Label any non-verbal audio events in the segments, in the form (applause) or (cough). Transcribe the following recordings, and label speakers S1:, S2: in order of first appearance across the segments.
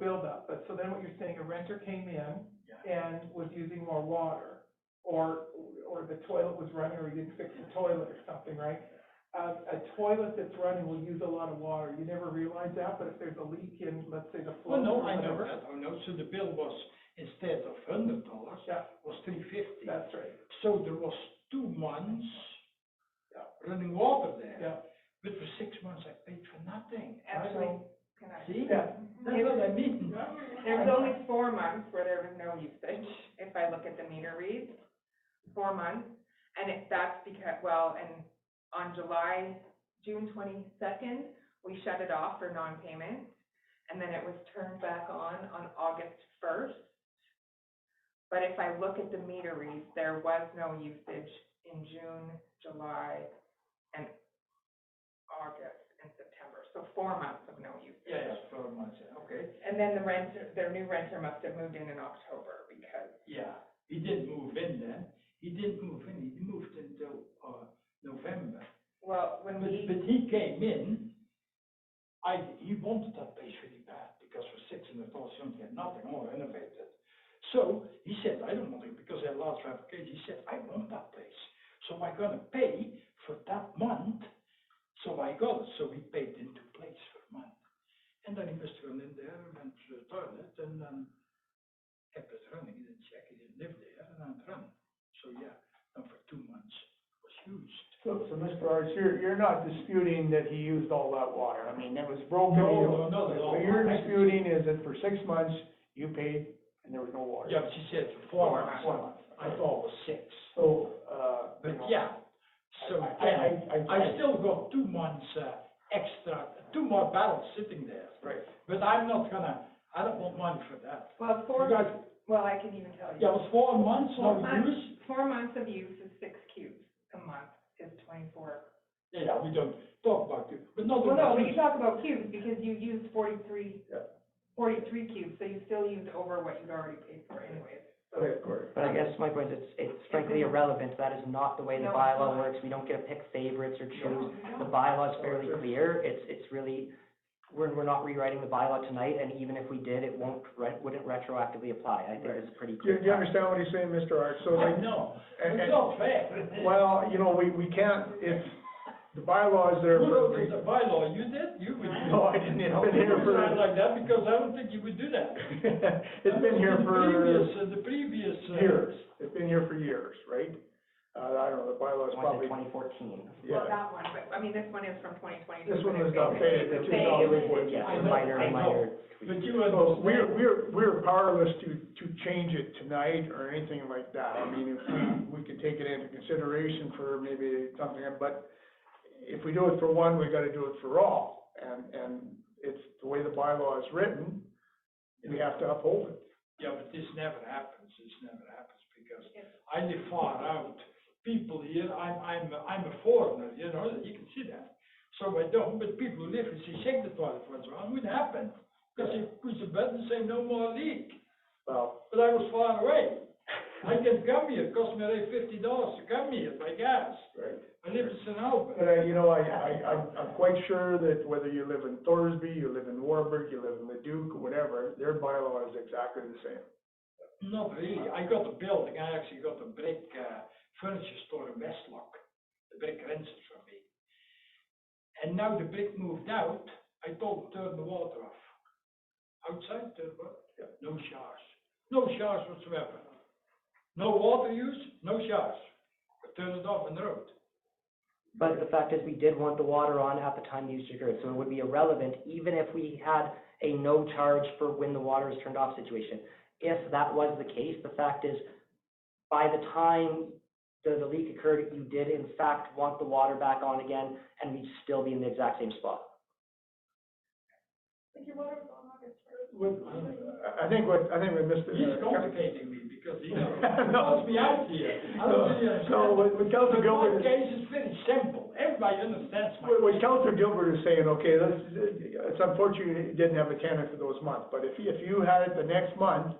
S1: buildup, but so then what you're saying, a renter came in and was using more water, or, or the toilet was running, or you didn't fix the toilet or something, right? A, a toilet that's running will use a lot of water, you never realize that, but if there's a leak in, let's say, the flow.
S2: Well, no, I never, I know, so the bill was, instead of hundred dollars,
S1: Yeah,
S2: was three fifty.
S1: that's right,
S2: So there was two months
S1: Yeah.
S2: running water there,
S1: yeah,
S2: but for six months I paid for nothing,
S1: I
S2: absolutely,
S1: know,
S2: see?
S1: yeah.
S2: That's what I mean.
S3: There's only four months where there was no usage, if I look at the meter reads, four months. And it, that's because, well, and on July, June twenty-second, we shut it off for non-payment. And then it was turned back on, on August first. But if I look at the meter reads, there was no usage in June, July, and August and September. So four months of no usage.
S2: Yeah, yeah, four months, yeah, okay,
S3: And then the renter, their new renter must have moved in in October because,
S2: yeah, he didn't move in then, he didn't move in, he moved until, uh, November.
S3: well, when
S2: But,
S3: we,
S2: but he came in, I, he wanted that place really bad, because for six hundred dollars, you don't get nothing, all renovated. So, he said, I don't want it, because that last application, he said, I want that place, so I'm gonna pay for that month, so I got it, so he paid into place for a month. And then he must have gone in there, and went to the toilet, and then kept it running, he didn't check, he didn't live there, and then it ran. So, yeah, and for two months, it was used.
S4: So, so Mr. Arts, you're, you're not disputing that he used all that water, I mean, that was broken. you know.
S2: No, no, no.
S4: What you're disputing is that for six months, you paid and there was no water.
S2: Yeah, but she said for four
S3: Four
S2: months.
S4: One month.
S2: I thought it was six.
S4: So, uh. you
S2: But
S4: know,
S2: yeah,
S4: I-
S2: so
S4: I,
S2: I,
S4: I, I.
S2: I still got two months, uh, extra, two more barrels sitting there.
S4: Right.
S2: But I'm not gonna, I don't want money for that.
S3: well, four,
S2: You guys,
S3: well, I can even tell
S2: yeah, it
S3: you.
S2: was four months on
S3: Four months.
S2: use.
S3: Four months of use is six cubes a month is twenty-four.
S2: Yeah, yeah, we don't talk about it, but not
S3: Well, no,
S2: about
S3: but you
S2: use.
S3: talk about cubes because you used forty-three,
S4: Yeah.
S3: forty-three cubes, so you still used over what you'd already paid for anyways.
S4: Right, of course.
S5: But I guess my point is, it's- it's frankly irrelevant, that is not the way the
S3: No, it's
S5: bylaw
S3: not.
S5: works, we don't get to pick favorites or choose.
S3: No,
S5: The
S3: no.
S5: bylaw is fairly clear, it's, it's really, we're, we're not rewriting the bylaw tonight, and even if we did, it won't, re- wouldn't retroactively apply, I think
S4: Right.
S5: it's pretty
S4: Do you,
S5: clear.
S4: do you understand what he's saying, Mr. Arts? So like,
S2: I know,
S4: and,
S2: it's
S4: and,
S2: not fair.
S4: well, you know, we, we can't, if the bylaw is there
S2: Who
S4: for a
S2: wrote the
S4: reason.
S2: bylaw? You did? You would do that.
S4: No, I didn't, it's been
S2: You
S4: here
S2: would
S4: for.
S2: sign like that because I don't think you would do that.
S4: (laughs) It's been here
S2: The
S4: for
S2: previous, uh, The previous. uh,
S4: years, it's been here for years, right? Uh, I don't know, the bylaw's
S5: I want to
S4: probably,
S5: say twenty fourteen.
S3: Well,
S4: yeah.
S3: that one, but, I mean, this one is from twenty twenty.
S4: This one was not dated in
S3: It's the
S4: two
S3: same.
S5: It
S4: thousand
S5: was,
S4: fourteen.
S5: yeah,
S2: I
S5: a
S2: know,
S5: minor,
S2: I know.
S5: minor
S2: But
S5: tweak.
S2: you
S4: So
S2: understand.
S4: we're, we're, we're powerless to, to change it tonight or anything like that. I mean, if we, we could take it into consideration for maybe something, but if we do it for one, we gotta do it for all. And, and it's the way the bylaw is written, we have to uphold it.
S2: Yeah, but this never happens, this never happens, because I live far out, people here, I'm, I'm, I'm a foreigner, you know, you can see that. So I don't, but people who live in Sechek, the toilet was wrong, would happen, because they push a button and say, no more leak,
S4: Well,
S2: but I was far away. I can come here, it cost me like fifty dollars to come here by gas,
S4: right.
S2: I live in St. Albert.
S4: But I, uh, you know, I, I, I'm, I'm quite sure that whether you live in Thorsby, you live in Warburg, you live in Leduc, whatever, their bylaw is exactly the same.
S2: Not really, I got a building, I actually got a brick, uh, furniture store in Westlock, the brick rented from me. And now the brick moved out, I told them turn the water off. Outside, turn what? No showers, no showers whatsoever. No water use, no showers, I turned it off on the road.
S5: But the fact is, we did want the water on at the time the use occurred, so it would be irrelevant, even if we had a no charge for when the water is turned off situation. If that was the case, the fact is, by the time the, the leak occurred, you did in fact want the water back on again, and we'd still be in the exact same spot.
S4: What, I I think what, I think we missed it.
S2: He's complicating me because he
S4: (laughs)
S2: wants me out here. I don't really
S4: So, so
S2: understand.
S4: what, what Counselor
S2: But my
S4: Gilbert,
S2: case is very simple, everybody understands
S4: what,
S2: my. case.
S4: what Counselor Gilbert is saying, okay, let's, it's unfortunate you didn't have a tenant for those months, but if, if you had it the next month,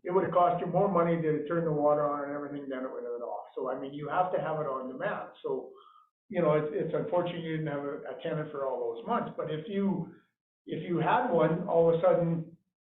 S4: it would have cost you more money to turn the water on and everything than it would have been off. So, I mean, you have to have it on demand, so, you know, it's, it's unfortunate you didn't have a, a tenant for all those months, but if you, if you had one, all of a sudden,